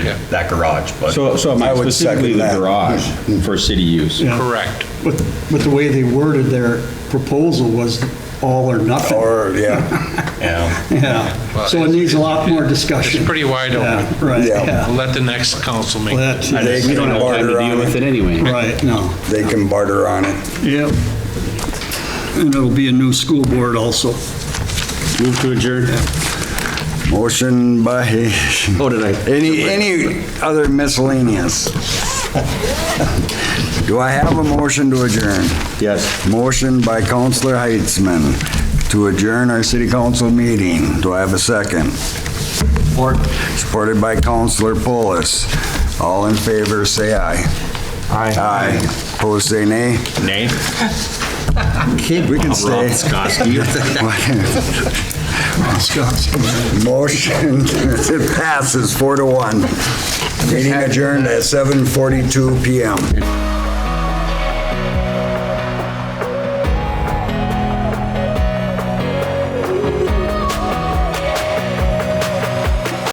that garage, but. So, so I I mean would specifically second the that. garage for city use. Yeah. Correct. But, but the way they worded their proposal was all or nothing. Or, yeah, Yeah. Yeah, Well, so it needs a lot more discussion. It's pretty wide Yeah, open. Right, Yeah. yeah. Let the next council make. Well, it. that's- I They don't have time to barter deal on with it anyway. Right, no. they can barter on it. Yep. And it'll be a new school board also. Move to adjourn. Motion by, Oh, did I? any, any other miscellaneous? Do I have a motion to adjourn? Yes. Motion by Counselor Heitzman to adjourn our city council meeting. Do I have a second? Support. Supported by Counselor Polis. All in favor, say aye. Aye. Aye. Opposed, say nay. Nay? Kid, we can stay. Motion it passes four to one. Meeting adjourned at 7:42 PM.